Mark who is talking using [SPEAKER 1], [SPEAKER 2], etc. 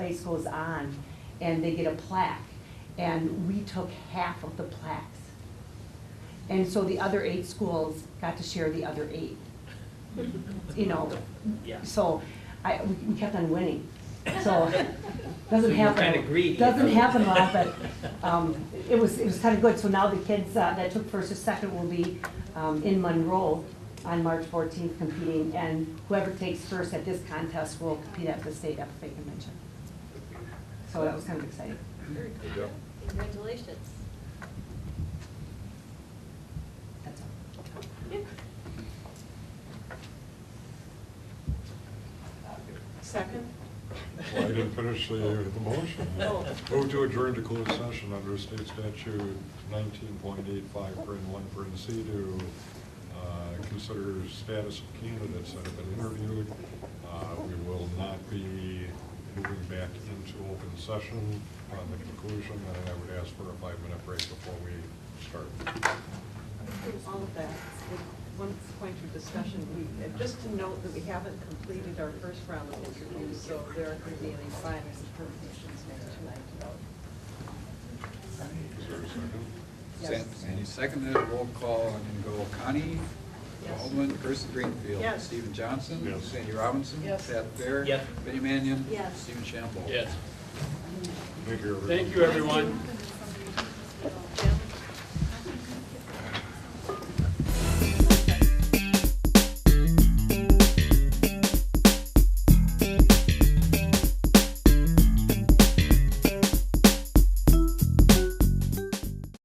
[SPEAKER 1] place goes on and they get a plaque. And we took half of the plaques. And so the other eight schools got to share the other eight. You know,
[SPEAKER 2] Yeah.
[SPEAKER 1] so I, we we kept on winning. So, doesn't
[SPEAKER 2] So you were
[SPEAKER 1] happen.
[SPEAKER 2] kinda greedy.
[SPEAKER 1] Doesn't happen a lot, but um, it was, it was kind of good. So now the kids uh, that took first or second will be um, in Monroe on March 14th competing, and whoever takes first at this contest will compete at the state FFA convention. So that was kind of exciting.
[SPEAKER 3] Very
[SPEAKER 4] There you
[SPEAKER 3] cool.
[SPEAKER 4] go.
[SPEAKER 3] Congratulations.
[SPEAKER 1] That's all.
[SPEAKER 5] Second?
[SPEAKER 4] Well, I didn't finish the, the motion.
[SPEAKER 5] Oh.
[SPEAKER 4] Move to adjourn to closed session under state statute nineteen point eight five, print one, print C, to, uh, consider status of candidates that have been interviewed. Uh, we will not be moving back into open session on the conclusion, and I would ask for a five-minute break before we start.
[SPEAKER 5] All of that, with one point of discussion, we, and just to note that we haven't completed our first round of interviews, so there aren't going to be any final determinations made tonight.
[SPEAKER 4] Is there a second?
[SPEAKER 5] Yes.
[SPEAKER 6] And you seconded, it. roll call, I'm gonna go Connie
[SPEAKER 5] Yes.
[SPEAKER 6] Baldwin, Kirsten Greenfield.
[SPEAKER 5] Yes.
[SPEAKER 6] Stephen Johnson.
[SPEAKER 4] Yes.
[SPEAKER 6] Sandy Robinson.
[SPEAKER 5] Yes.
[SPEAKER 6] Pat Fair.
[SPEAKER 2] Yes.
[SPEAKER 6] Benny Mannion.
[SPEAKER 3] Yes.
[SPEAKER 6] Stephen Shambo.
[SPEAKER 7] Yes.
[SPEAKER 4] Thank you, everyone.
[SPEAKER 7] Thank you, everyone.